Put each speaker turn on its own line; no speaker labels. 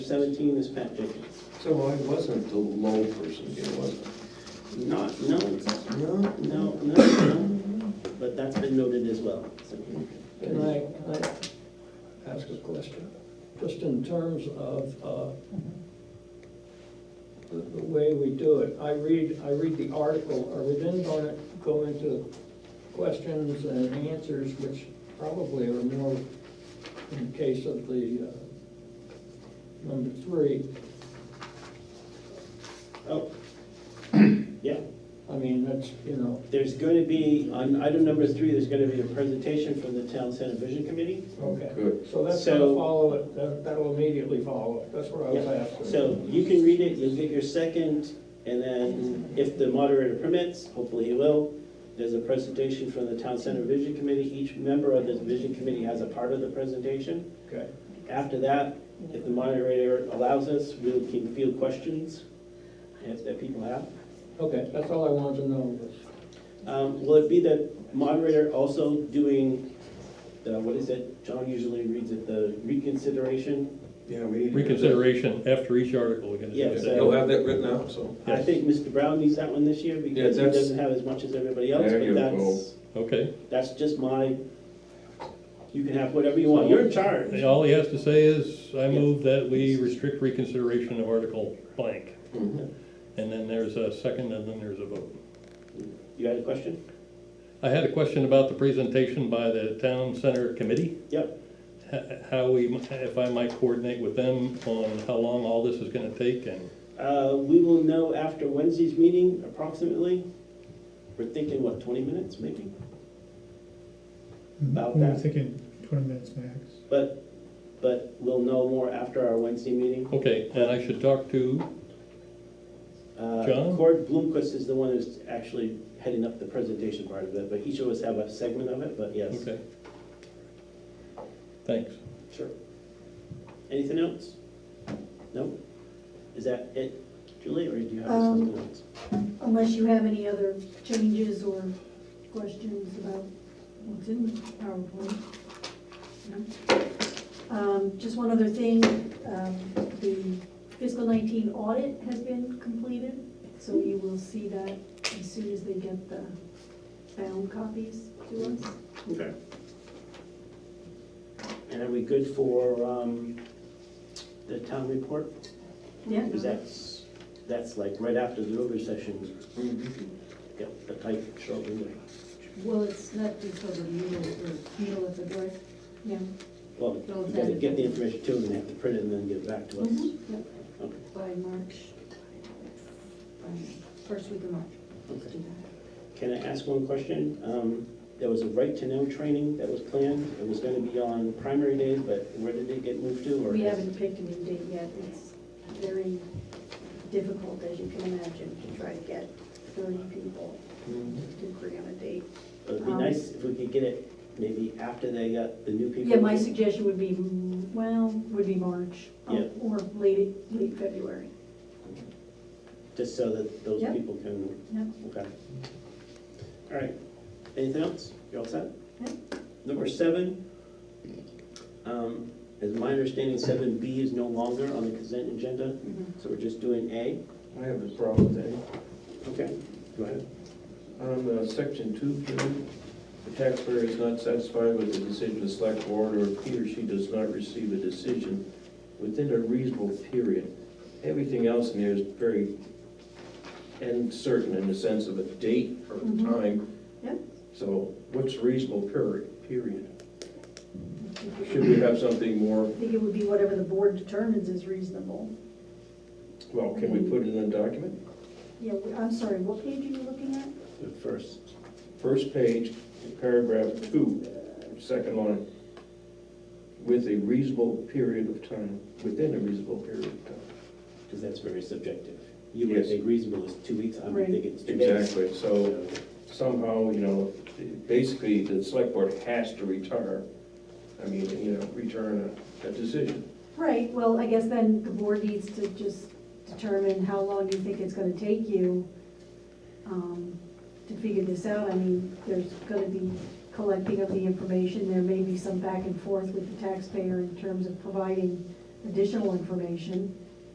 seventeen is Pat Jenkins.
So I wasn't the low person here, was
Not, no,
I? No.
no, no, no, but that's been noted as well, so.
Can I, can I ask a question? Just in terms of, uh, the, the way we do it, I read, I read the article, are we then gonna go into questions and answers, which probably are more in the case of the, uh, number three,
Oh, yeah,
I mean, that's, you know,
there's gonna be, on item number three, there's gonna be a presentation from the Town Center Vision Committee.
okay.
Good.
So that's gonna
So-
follow it, that, that'll immediately follow it, that's what I was
Yeah.
asking.
So you can read it, you'll get your second, and then if the moderator permits, hopefully he will, there's a presentation from the Town Center Vision Committee. Each member of the Vision Committee has a part of the presentation.
Okay,
After that, if the moderator allows us, we can field questions if that people have.
okay, that's all I wanted to know was.
Um, Will it be the moderator also doing, the what is it, John usually reads it, the reconsideration?
Yeah, we.
Reconsideration after each article, we're gonna
Yeah,
do
so-
that.
You'll have that written out, so.
I think Mr. Brown needs that one this year
Yeah,
because he
that's-
doesn't have as much as everybody else,
There
but
you
that's,
Okay,
that's just my, you can have whatever you want, you're in charge.
And all he has to say is, I
Yeah.
move that we restrict reconsideration of article blank.
Mhm.
And then there's a second, and then there's a vote.
You had a question?
I had a question about the presentation by the town center committee,
Yep,
h- how we, if I might coordinate with them on how long all this is gonna take and,
uh, we will know after Wednesday's meeting approximately. We're thinking, what, twenty minutes maybe? About
We were
that.
thinking twenty minutes max.
But, but we'll know more after our Wednesday meeting.
okay, and I should talk to,
Uh,
John?
Cord Bloomquist is the one who's actually heading up the presentation part of it, but each of us have a segment of it, but yes.
okay. Thanks.
Sure. Anything else? No? Is that it, Julie, or do you have
Um,
something else?
Unless you have any other changes or questions about what's in the PowerPoint. No? Um, Just one other thing, um, the fiscal 19 audit has been completed, so you will see that as soon as they get the bound copies to us.
Okay. And are we good for, um, the town report?
Yeah?
Because that's, that's like right after the Rover session,
Mm-hmm.
yep, the type short window.
Well, it's not because of you or Neil at the door.
Yeah.
Well, you gotta get the information to them, they have to print it and then give it back to us.
Mhm.
Yep.
Okay.
By March, um, first week of March. Let's
Okay.
do that.
Can I ask one question? Um, There was a right-to-know training that was planned. It was gonna be on primary days, but where did it get moved to? or-
We haven't picked a new date yet. It's very difficult, as you can imagine, to try to get 30 people
Mm-hmm.
to agree on a date.
It would be
um,
nice if we could get it maybe after they got the new people.
Yeah, my suggestion would be, mm, well, would be March um,
Yeah.
or late, late February.
Just so that those
Yep.
people can,
Yep.
okay. All right, anything else? You all set?
Yep.
Number seven, um, as my understanding, seven B is no longer on the consent agenda, so we're just doing A.
I have a problem with that.
Okay, go ahead.
On uh, section two, Jim, the taxpayer is not satisfied with the decision of the select board, or if he or she does not receive a decision within a reasonable period. Everything else in there is very uncertain in the sense of a date or a
Mhm.
time.
Yep.
So what's reasonable period, period? Should we have something more,
I think it would be whatever the board determines is reasonable.
well, can we put it in a document?
Yeah, we- I'm sorry, what page are you looking at?
The First,
First page, paragraph two, second line. With a reasonable period of time, within a reasonable period of time.
because that's very subjective. You would
Yes.
think reasonable is two weeks, I would
Right.
think it's two days.
Exactly, so
So,
somehow, you know, basically, the select board has to retire, I mean, you know, return a, a decision.
Right, well, I guess then the board needs to just determine how long you think it's gonna take you um, to figure this out. I mean, there's gonna be collecting of the information, there may be some back and forth with the taxpayer in terms of providing additional information